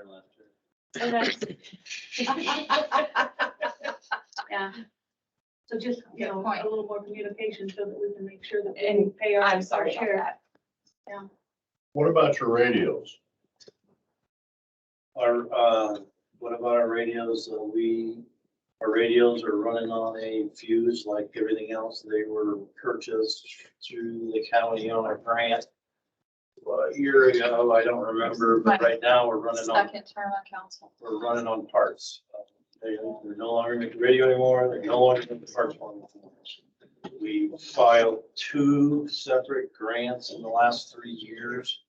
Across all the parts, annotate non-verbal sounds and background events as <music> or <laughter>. <laughs> Yeah. So just, you Good know, point. a little more communication so that we can make sure that we And pay our. I'm sorry about fair share. that. What about your radios? Our, uh, what about our radios? Uh, We, our radios are running on a fuse like everything else. They were purchased through the county on a grant. uh, A year ago, I don't remember, but right now we're running on, Second term on council. we're running on parts. They, they're no longer making radio anymore. They're no longer making parts on. We filed two separate grants in the last three years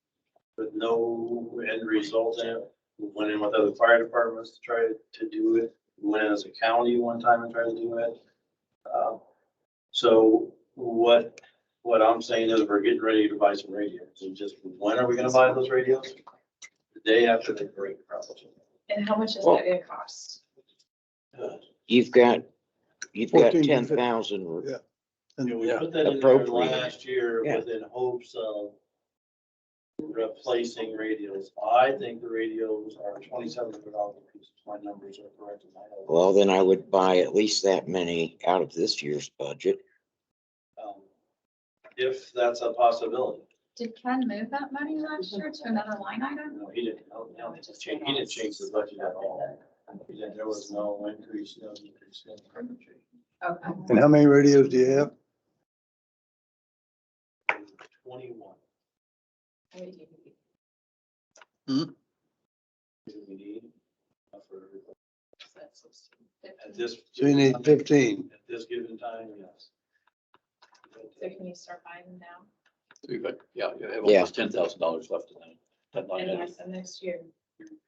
with no end result in it. We went in with other fire departments to try to do it. We went in as a county one time and tried to do it. Uh, So what, what I'm saying is we're getting ready to buy some radios and just when are we gonna buy those radios? The day after the break, probably. And how much is Well- that gonna cost? Uh, You've got, you've got 14 to ten 15. thousand, Yeah. You know, we Yeah, put that in there appropriate. last year Yeah. with in hopes of replacing radios. I think the radios are twenty-seven hundred dollars a piece. if My numbers are correct. in my head. well, then I would buy at least that many out of this year's budget. Um, If that's a possibility. Did Ken move that money last year to another line item? No, he didn't, no, no, he just changed, he didn't change the budget at all. He didn't- There was no increase, no increase, no increase. Okay. And how many radios do you have? Twenty-one. is what we need for- At this. So you need fifteen. At this given time, yes. So can you start buying them now? So you've got, yeah, you have Yeah. almost ten thousand dollars left in that- that line And item. yes, and next year,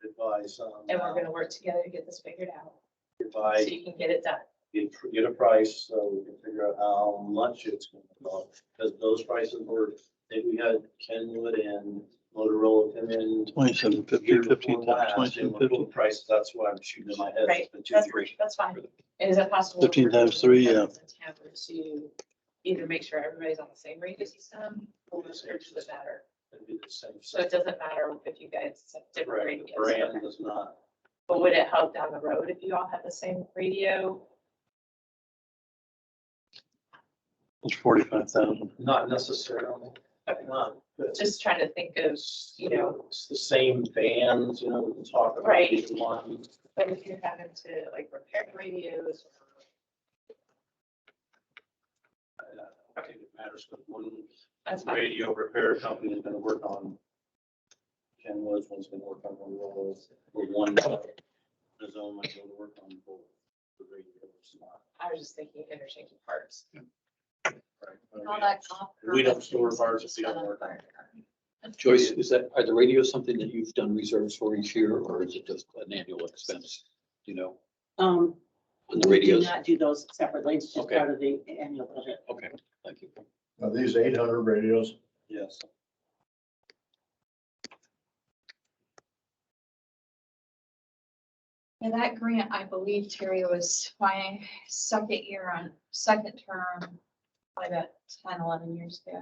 Advise, um. and we're gonna work together to get this figured out, so Advise, you can get it done. get get a price, so we can figure out how much it's gonna cost, because those prices were, if we had Kenwood and Motorola come in. Twenty-seven the year before last, they were full Price, that's what I'm shooting in my head. Right, the two, that's, three. that's fine. And is it possible? 15 for times three, everyone in town To either make sure everybody's on the same rate system, or just search the better. It'd be the same. So it doesn't matter if you guys have different Brand, the radios. brand does not, But would it help down the road if you all had the same radio? It's forty-five thousand. not necessarily, not, but Just trying to think of, it's, you know, it's the same bands, you know, we can talk about. Right. each One. but if you're having to like repair radios. I think it matters, but one That's fine. radio repair company is gonna work on Ken Woods, one's gonna work on one of those, or one, his own might go to work on both. The radio is not, I was just thinking interchanging parts. right? We don't store parts if we don't work on it. Joyce, is that, are the radios something that you've done reserves for each year, or is it just an annual expense? Do You know, Um, on the we do radios? not do those separately, it's just Okay. part of the annual budget. Okay, thank you. Are these eight hundred radios? Yes. And that grant, I believe Terry was my second year on, second term, like about 10, 11 years ago.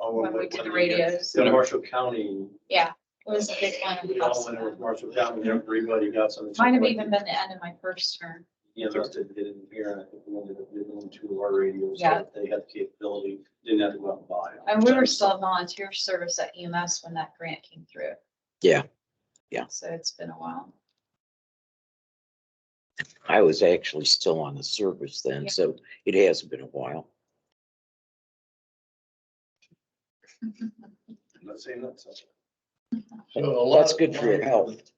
Oh, When we did the radios. The Marshall County, Yeah, it was a big one. we all went with Marshall County, everybody got some. Might have even been the end of my first term. Yeah, that's did it in here, and I think we ended up giving them two of our radios, so Yeah. that they had the capability, didn't have to go out and buy. them. And we were still a volunteer service at EMS when that grant came through. Yeah, yeah. So it's been a while. I was actually still on the service then, Yeah. so it has been a while. I'm not saying that's. So a lot- That's good for your health.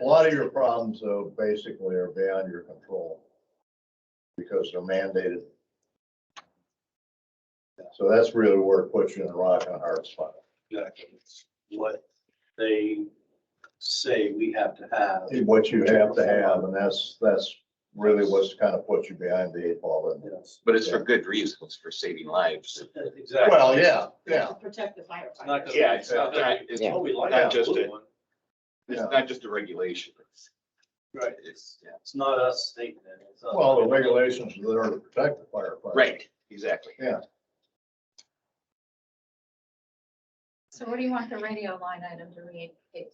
A lot of your problems though, basically are beyond your control. Because they're mandated. So that's really where it puts you in the rock and hard spot. Exactly. What they say we have to have. What you have to have, and that's, that's really what's kind of puts you behind the eight ball. isn't it? Yes. But it's for good reasons, for saving lives. Exactly. Well, yeah, yeah. To protect the It's not firefighters. gonna- Yeah, it's not gonna be- it's Yeah. Oh, we like Not that just blue it. one. It's Yeah. not just a regulation. It's- Right, It's, yeah. it's not us stating it. it's us. Well, the regulations are there to protect the firefighters. Right, exactly. So what do you want the radio line item to read?